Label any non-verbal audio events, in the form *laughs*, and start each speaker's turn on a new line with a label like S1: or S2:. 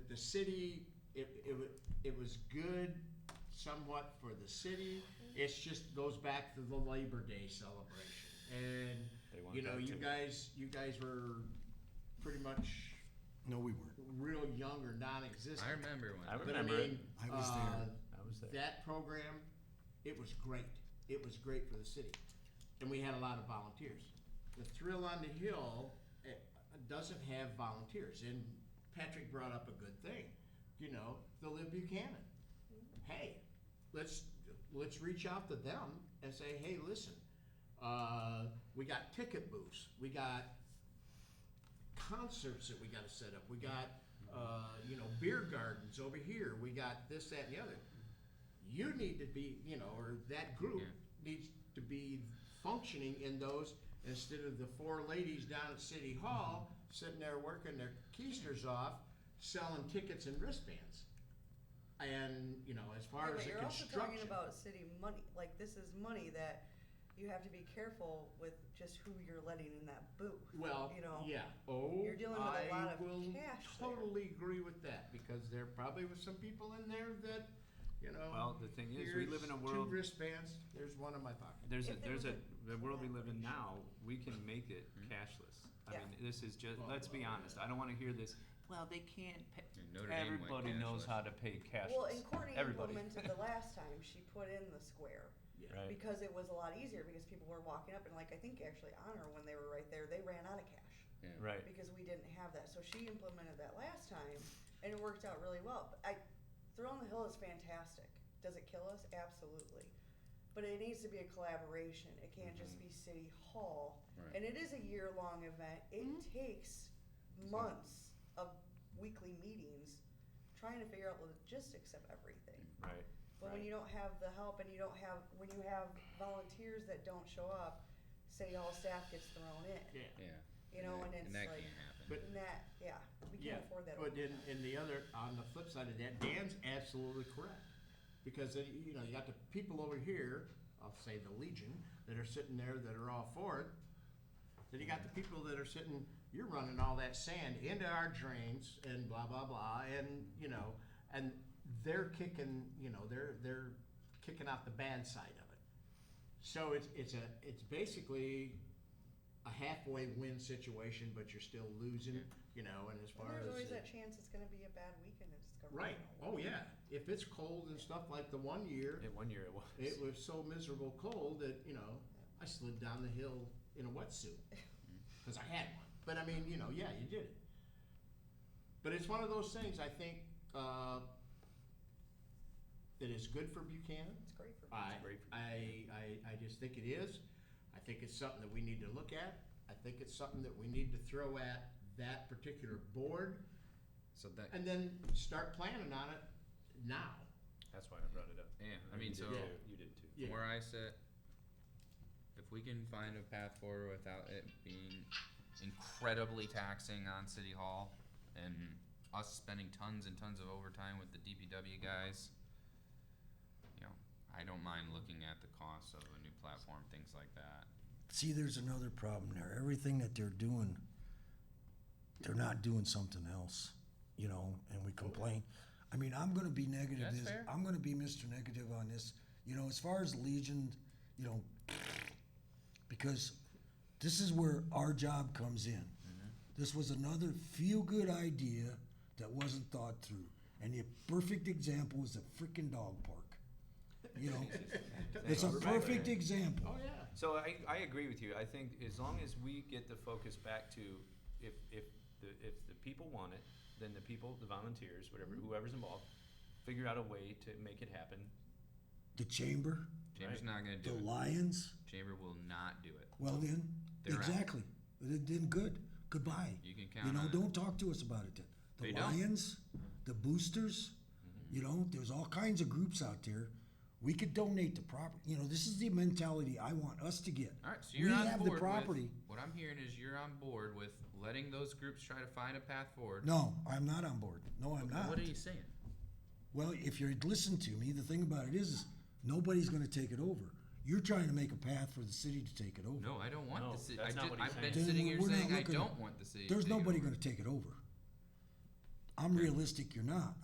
S1: the city, it, it, wa- it was good somewhat for the city. It's just goes back to the Labor Day celebration. And,
S2: They
S1: you
S2: want
S1: know,
S2: that
S1: you
S2: too.
S1: guys, you guys were pretty much
S3: No, we weren't.
S1: real young or non-existent.
S4: I remember when.
S2: I
S1: But
S2: remember
S1: I
S2: it.
S1: mean,
S3: I was
S1: uh,
S3: there.
S2: I was there.
S1: that program, it was great. It was great for the city. And we had a lot of volunteers. The Thrill on the Hill eh, doesn't have volunteers. And Patrick brought up a good thing, you know, the Lib Buchanan. Hey, let's, let's reach out to them and say, hey, listen, uh, we got ticket booths, we got concerts that we gotta set up, we got, uh, you know, beer gardens over here, we got this, that, and the other you need to be, you know, or that group needs to be functioning in those instead of the four ladies down at City Hall sitting there working their keisters off, selling tickets and wristbands. And, you know, as far
S5: Yeah,
S1: as
S5: but
S1: the
S5: you're also talking
S1: construction,
S5: about city money, like this is money that you have to be careful with just who you're letting in that booth.
S1: well,
S5: you know,
S1: yeah, oh,
S5: you're dealing with a lot
S1: I
S5: of
S1: will
S5: cash there.
S1: totally agree with that, because there probably was some people in there that, you know,
S2: Well, the thing is, we
S1: here's
S2: live in a
S1: two
S2: world,
S1: wristbands, there's one in my pocket.
S2: there's a,
S5: If there
S2: there's a,
S5: was
S2: the world we live in now,
S5: collaboration.
S2: we can make it cashless. I
S5: Yeah.
S2: mean, this is just,
S1: Well,
S2: let's be
S1: well,
S2: honest, I don't wanna hear this, well, they can't pay.
S4: Yeah, Notre Dame went
S2: Everybody knows
S4: cashless.
S2: how to pay
S5: Well,
S2: cashless,
S5: and Courtney
S2: everybody.
S5: implemented
S2: *laughs*
S5: the last time, she put in the square,
S1: Yeah.
S2: Right.
S5: because it was a lot easier, because people were walking up, and like, I think actually Honor, when they were right there, they ran out of cash.
S2: Right,
S5: Because we didn't have that, so she implemented that last time, and it worked out really well, but I, Throw on the Hill is fantastic, does it kill us? Absolutely. But it needs to be a collaboration, it can't just be City Hall,
S4: Right.
S5: and it is a year-long event, it takes months of weekly meetings trying to figure out logistics of everything.
S2: Mm-hmm. right,
S5: But when you don't have the help and you don't have, when you have volunteers that don't show up, city hall staff gets thrown in,
S1: Yeah.
S4: Yeah.
S5: you know, and
S4: that-
S5: it's
S4: that
S5: like,
S4: can't happen.
S1: But-
S5: and that, yeah, we
S1: Yeah,
S5: can't afford that.
S1: But
S5: over
S1: then,
S5: time.
S1: in the other, on the flip side of that, Dan's absolutely correct. Because, then, you know, you got the people over here, I'll say the Legion, that are sitting there that are all for it. Then you got the people that are sitting, you're running all that sand into our drains and blah, blah, blah, and, you know, and they're kicking, you know, they're, they're kicking out the bad side of it. So it's, it's a, it's basically a halfway win situation, but you're still losing, you know, and as
S5: And
S1: far
S5: there's
S1: as.
S5: always
S1: the-
S5: that chance it's gonna be a bad weekend and it's gonna.
S1: Right, oh yeah, if it's cold and stuff like the one year,
S2: Yeah, one year it was.
S1: it was so miserable cold that, you know, I slid down the hill in a wetsuit. Cause I had one, but I mean, you know, yeah, you did it. But it's one of those things, I think, uh, that is good for Buchanan.
S5: It's great for.
S1: I,
S2: great for
S1: I, I, I just think it is. I think it's something that we need to look at. I think it's something that we need to throw at that particular board
S4: So that,
S1: and then start planning on it now.
S2: That's why I brought it up.
S4: yeah, I mean, so
S1: Yeah.
S2: You did too.
S1: Yeah.
S4: where I sit, if we can find a path forward without it being incredibly taxing on City Hall and us spending tons and tons of overtime with the DPW guys, you know, I don't mind looking at the cost of a new platform, things like that.
S3: See, there's another problem there. Everything that they're doing, they're not doing something else, you know, and we complain. I mean, I'm gonna be negative.
S4: That's
S3: is-
S4: fair.
S3: I'm gonna be Mr. Negative on this. You know, as far as Legion, you know, because this is where our job comes in.
S4: Mm-hmm.
S3: This was another feel-good idea that wasn't thought through. And the perfect example is the frickin' dog park. You
S4: *laughs*
S3: know, it's a perfect example.
S1: Oh, yeah.
S2: So I, I agree with you. I think as long as we get the focus back to if, if the, if the people want it, then the people, the volunteers, whatever, whoever's involved, figure out a way to make it happen.
S3: The chamber,
S4: Chamber's not gonna
S3: the
S4: do it.
S3: Lions.
S4: Chamber will not do it.
S3: Well, then,
S4: They're out.
S3: exactly. Then, then good. Goodbye.
S4: You can
S3: You
S4: count
S3: know,
S4: on it.
S3: don't talk to us about it then.
S4: They
S3: The
S4: don't. Mm-hmm.
S3: Lions, the Boosters, you know, there's all kinds of groups out there. We could donate the property. You know, this is the mentality I want us to get.
S4: All right, so you're
S3: we
S4: on
S3: have
S4: board
S3: the property.
S4: With, what I'm hearing is you're on board with letting those groups try to find a path forward.
S3: No, I'm not on board. No, I'm
S4: What
S3: not.
S4: are you saying?
S3: Well, if you listen to me, the thing about it is, is nobody's going to take it over. You're trying to make a path for the city to take it over.
S4: No, I don't want
S2: No,
S4: the city.
S2: that's
S4: I've
S2: not
S4: been,
S2: what he's
S4: I've been
S3: saying.
S4: sitting
S3: Then
S4: here
S3: we're not
S4: saying I
S3: looking-
S4: don't want the city.
S3: There's
S4: to take it
S3: nobody
S4: over.
S3: going to take it over. I'm realistic, you're not.